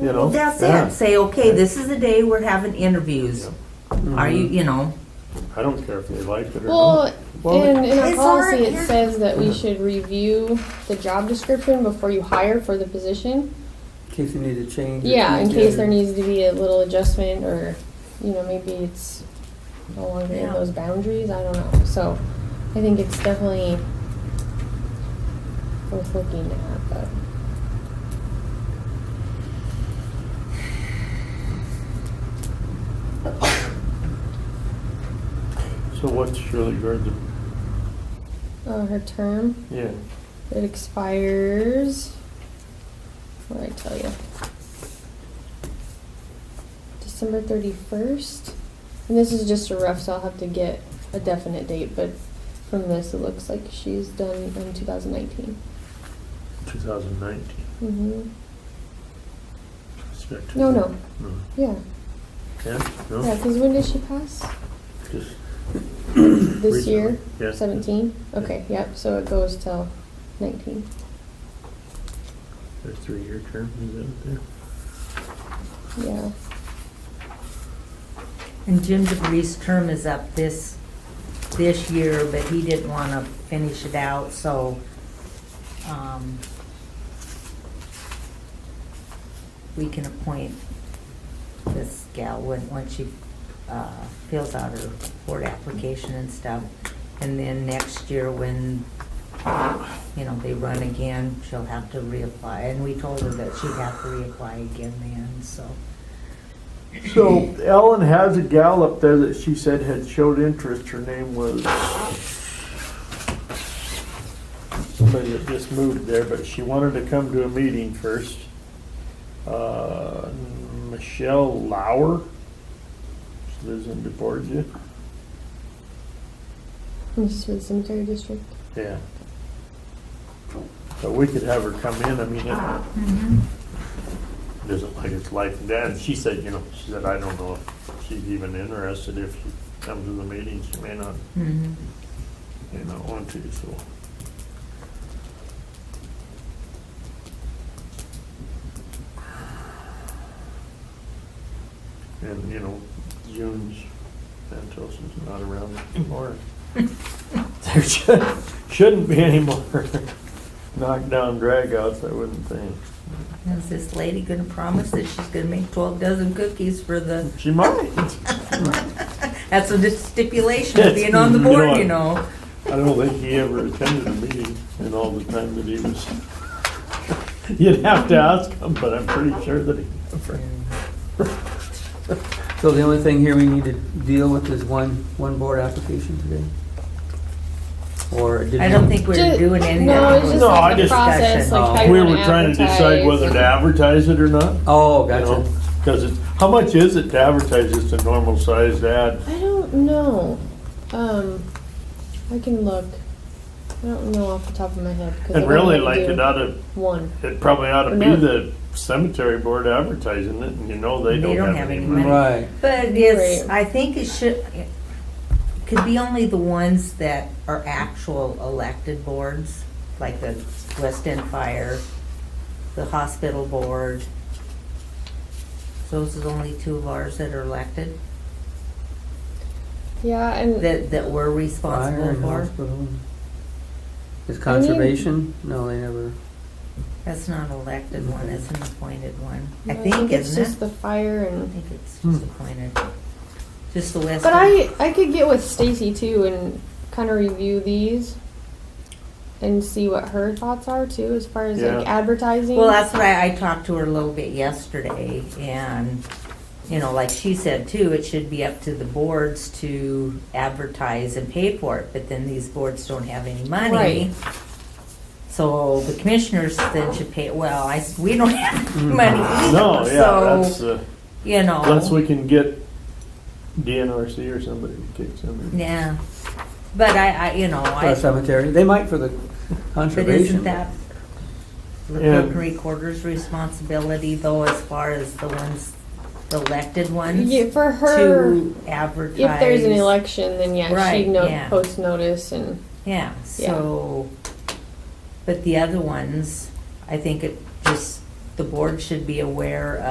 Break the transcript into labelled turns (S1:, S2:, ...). S1: you know?
S2: That's
S1: Yeah.
S2: it, say, okay, this is the day we're having interviews. Are you, you know,
S1: Mm-hmm. I don't care if they like it or not.
S3: Well, in, in our
S2: It's
S3: policy,
S2: already-
S3: it says that we should review the job description before you hire for the position.
S4: In case you need to change. it.
S3: Yeah, in case there needs to be a little adjustment or, you know, maybe it's no longer in
S2: Yeah.
S3: those boundaries, I don't know. So I think it's definitely worth looking at, but.
S1: So what's Shirley Gardner?
S3: Uh, her term,
S1: Yeah,
S3: it expires, what did I tell you? December thirty-first, and this is just a rough, so I'll have to get a definite date, but from this, it looks like she's done in two thousand nineteen.
S1: two thousand nineteen.
S3: Mm-hmm, no, no,
S1: No.
S3: yeah,
S1: Yeah,
S3: yeah,
S1: no,
S3: cause when did she pass?
S1: just,
S3: This year,
S1: yeah.
S3: seventeen, okay, yep, so it goes till nineteen.
S1: Their three-year term, is that it there?
S3: yeah,
S2: and Jim DeBree's term is up this, this year, but he didn't want to finish it out, so, um, we can appoint this gal when, once she, uh, fills out her board application and stuff. And then next year, when, you know, they run again, she'll have to reapply. And we told her that she'd have to reapply again then, so.
S1: So Ellen has a gal up there that she said had showed interest. Her name was somebody that just moved there, but she wanted to come to a meeting first. Uh, Michelle Lauer. She lives in DeBorgia.
S3: this is for the cemetery district.
S1: Yeah. But we could have her come in. I mean, it, doesn't like it's life and death. And she said, you know, she said, I don't know if she's even interested. If she comes to the meetings, she may not,
S2: Mhm.
S1: may not want to, so. And, you know, June's, Santos's not around anymore. There should, shouldn't be any more knockdown dragouts, I wouldn't think.
S2: Is this lady gonna promise that she's gonna make twelve dozen cookies for the,
S1: She might.
S2: that's a stipulation of being on the board, you know?
S1: I don't think he ever attended a meeting in all the time that he was. You'd have to ask him, but I'm pretty sure that he never.
S4: So the only thing here we need to deal with is one, one board application today? Or did you?
S2: I don't think we're
S3: Ju-
S2: doing any
S3: No,
S2: of
S3: it's
S2: that.
S3: just
S1: No,
S3: like
S1: I
S3: the
S1: just-
S3: process, like how
S4: Oh.
S3: you
S1: We
S3: wanna
S1: were trying to decide
S3: advertise.
S1: whether to advertise it or not.
S4: Oh,
S1: you
S4: gotcha.
S1: Because it's, how much is it to advertise just a normal sized ad?
S3: I don't know. Um, I can look. I don't know off the top of my head. 'cause I
S1: And
S3: don't
S1: really
S3: know what
S1: like
S3: to
S1: it
S3: do.
S1: ought to,
S3: One.
S1: it probably ought to be
S3: No.
S1: the cemetery board advertising it and you know they don't have any money.
S4: Right.
S2: But it's,
S3: Right.
S2: I think it should, it could be only the ones that are actual elected boards, like the West End Fire, the hospital board. Those are the only two of ours that are elected,
S3: Yeah, and
S2: that, that we're
S4: Fire
S2: responsible
S4: and
S2: for.
S4: hospital. Is conservation? No, they never.
S2: That's not an elected one, that's an appointed one.
S3: I
S2: I think,
S3: it's
S2: isn't it?
S3: just the fire
S2: I
S3: and.
S2: think it's
S1: Hmm.
S2: just appointed. Just the West.
S3: But
S2: End.
S3: I I could get with Stacy too and kind of review these. And see what her thoughts are too, as far as like
S1: Yeah.
S3: advertising.
S2: Well, that's what I, I talked to her a little bit yesterday and, you know, like she said too, it should be up to the boards to advertise and pay for it, but then these boards don't have any money.
S3: Right.
S2: So the commissioners then should pay, well, I, s- we don't have money
S1: Hmm. No,
S2: either,
S1: yeah, that's,
S2: so,
S1: uh,
S2: you know.
S1: unless we can get DNRC or somebody to take somebody.
S2: Yeah, but I, I, you know,
S4: For a
S2: I,
S4: cemetery. They might for the
S2: but
S4: conservation.
S2: isn't that the
S1: Yeah.
S2: clerk and recorder's responsibility though, as far as the ones, the elected ones?
S3: yeah, for her.
S2: to advertise.
S3: If there's an election, then yeah,
S2: Right,
S3: she'd no-
S2: yeah.
S3: post notice and
S2: Yeah, so, but the other ones, I think it just, the board should be aware